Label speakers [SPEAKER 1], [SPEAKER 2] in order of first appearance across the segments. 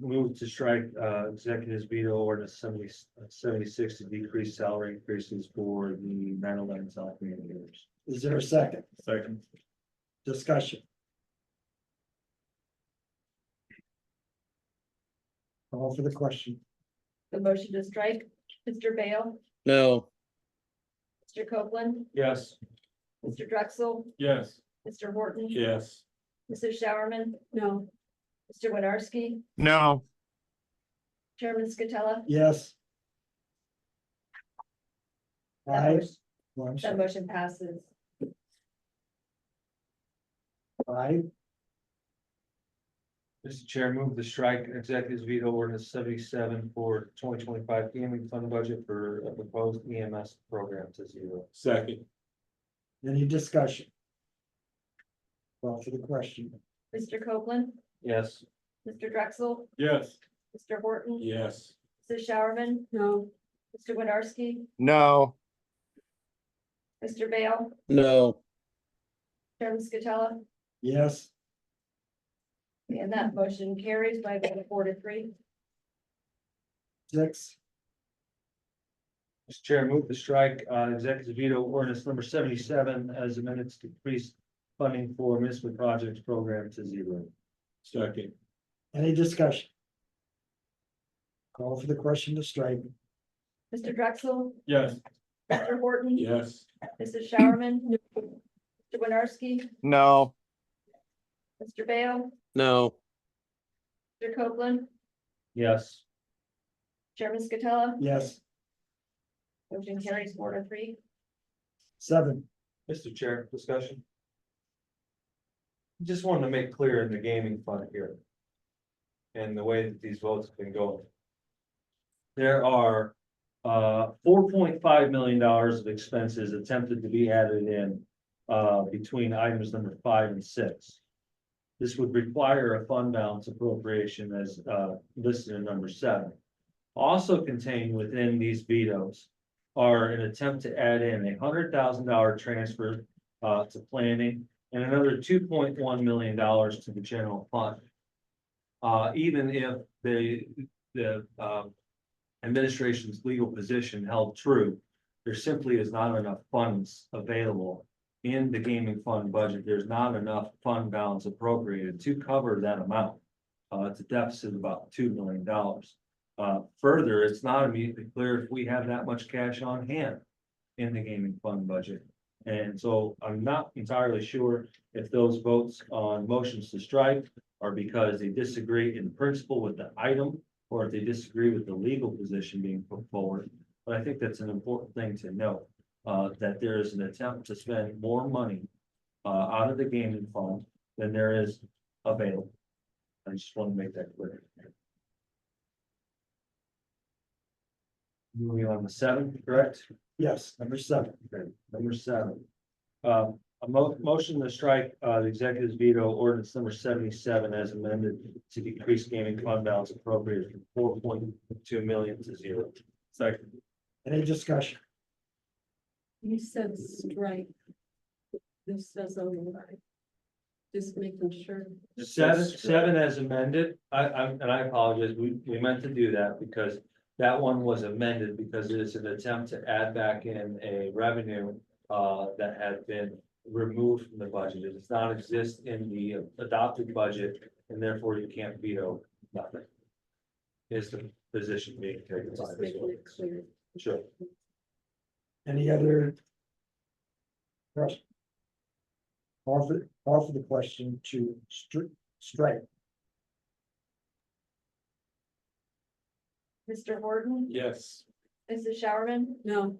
[SPEAKER 1] Move to strike, uh, executives veto ordinance 70 76 to decrease salary increases for the 9/11 South managers.
[SPEAKER 2] Is there a second
[SPEAKER 1] Second.
[SPEAKER 2] discussion? Call for the question.
[SPEAKER 3] The motion to strike, Mr. Bale,
[SPEAKER 4] no,
[SPEAKER 3] Mr. Copeland,
[SPEAKER 1] Yes.
[SPEAKER 3] Mr. Drexel,
[SPEAKER 1] Yes.
[SPEAKER 3] Mr. Horton.
[SPEAKER 1] Yes.
[SPEAKER 3] Mrs. Showerman. No. Mr. Winarski,
[SPEAKER 5] no,
[SPEAKER 3] Chairman Scatella.
[SPEAKER 2] Yes.
[SPEAKER 3] That
[SPEAKER 2] Five,
[SPEAKER 3] motion-
[SPEAKER 2] oh, I'm
[SPEAKER 3] That
[SPEAKER 2] sorry,
[SPEAKER 3] motion passes.
[SPEAKER 2] five,
[SPEAKER 1] Mr. Chair, move to strike executives veto ordinance seventy-seven for twenty twenty-five gaming fund budget for a proposed EMS program to zero. Second.
[SPEAKER 2] any discussion? Call for the question.
[SPEAKER 3] Mr. Copeland,
[SPEAKER 1] Yes.
[SPEAKER 3] Mr. Drexel,
[SPEAKER 1] Yes.
[SPEAKER 3] Mr. Horton.
[SPEAKER 1] Yes.
[SPEAKER 3] Mrs. Showerman. No. Mr. Winarski,
[SPEAKER 5] no,
[SPEAKER 3] Mr. Bale,
[SPEAKER 4] no,
[SPEAKER 3] Chairman Scatella,
[SPEAKER 2] Yes,
[SPEAKER 3] and that motion carries by a vote of four to three.
[SPEAKER 2] six,
[SPEAKER 1] Mr. Chair, move to strike uh executive veto ordinance number seventy-seven as amended to decrease funding for municipal projects program to zero. Second.
[SPEAKER 2] any discussion? Call for the question to strike.
[SPEAKER 3] Mr. Drexel,
[SPEAKER 1] Yes.
[SPEAKER 3] Mr. Horton.
[SPEAKER 1] Yes.
[SPEAKER 3] Mrs. Showerman. Mr. Winarski,
[SPEAKER 5] no,
[SPEAKER 3] Mr. Bale,
[SPEAKER 4] no,
[SPEAKER 3] Mr. Copeland,
[SPEAKER 1] Yes.
[SPEAKER 3] Chairman Scatella.
[SPEAKER 2] Yes,
[SPEAKER 3] Motion carries four to three.
[SPEAKER 2] seven,
[SPEAKER 1] Mr. Chair, discussion. Just wanted to make clear in the gaming fund here. And the way that these votes have been going. There are uh four point five million dollars of expenses attempted to be added in. Uh, between items number five and six. This would require a fund balance appropriation as uh listed in number seven. Also contained within these vetoes are an attempt to add in a hundred thousand dollar transfer uh to planning and another two point one million dollars to the general fund. Uh, even if the, the um administration's legal position held true, there simply is not enough funds available in the gaming fund budget. There's not enough fund balance appropriated to cover that amount. Uh, it's a deficit of about two million dollars. Uh, further, it's not immediately clear if we have that much cash on hand in the gaming fund budget. And so I'm not entirely sure if those votes on motions to strike are because they disagree in principle with the item or if they disagree with the legal position being put forward. But I think that's an important thing to note, uh, that there is an attempt to spend more money uh, out of the gaming fund than there is available. I just want to make that clear. Moving on to seven, correct?
[SPEAKER 2] yes, number seven,
[SPEAKER 1] Okay, number seven. Um, a mo- motion to strike, uh, the executive's veto ordinance number seventy-seven as amended to decrease gaming fund balance appropriated from four point two million to zero. Second.
[SPEAKER 2] any discussion?
[SPEAKER 6] You said strike. This says override. Just making sure.
[SPEAKER 1] Seven, seven as amended, I, I'm, and I apologize, we, we meant to do that because that one was amended because it is an attempt to add back in a revenue uh, that had been removed from the budget. It does not exist in the adopted budget and therefore you can't veto nothing. Is the position being taken by
[SPEAKER 6] Just
[SPEAKER 1] this
[SPEAKER 6] making
[SPEAKER 1] one?
[SPEAKER 6] it clear.
[SPEAKER 1] Sure.
[SPEAKER 2] Any other? Question? Call for, call for the question to stri- strike,
[SPEAKER 3] Mr. Horton,
[SPEAKER 1] Yes.
[SPEAKER 3] Mrs. Showerman,
[SPEAKER 6] No,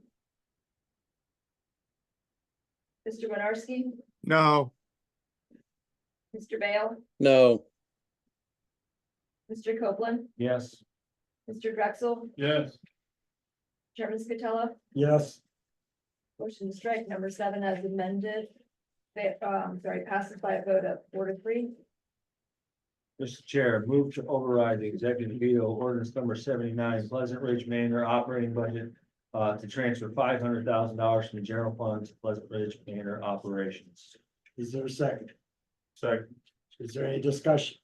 [SPEAKER 3] Mr. Winarski,
[SPEAKER 5] no,
[SPEAKER 3] Mr. Bale,
[SPEAKER 4] no,
[SPEAKER 3] Mr. Copeland,
[SPEAKER 1] Yes.
[SPEAKER 3] Mr. Drexel,
[SPEAKER 1] Yes.
[SPEAKER 3] Chairman Scatella.
[SPEAKER 2] yes,
[SPEAKER 3] Motion to strike number seven as amended. They, um, sorry, passes by a vote of four to three.
[SPEAKER 1] Mr. Chair, move to override the executive veto ordinance number seventy-nine Pleasant Ridge Manor operating budget. Uh, to transfer five hundred thousand dollars from the general fund to Pleasant Ridge Manor operations.
[SPEAKER 2] is there a second?
[SPEAKER 1] Second.
[SPEAKER 2] Is there any discussion?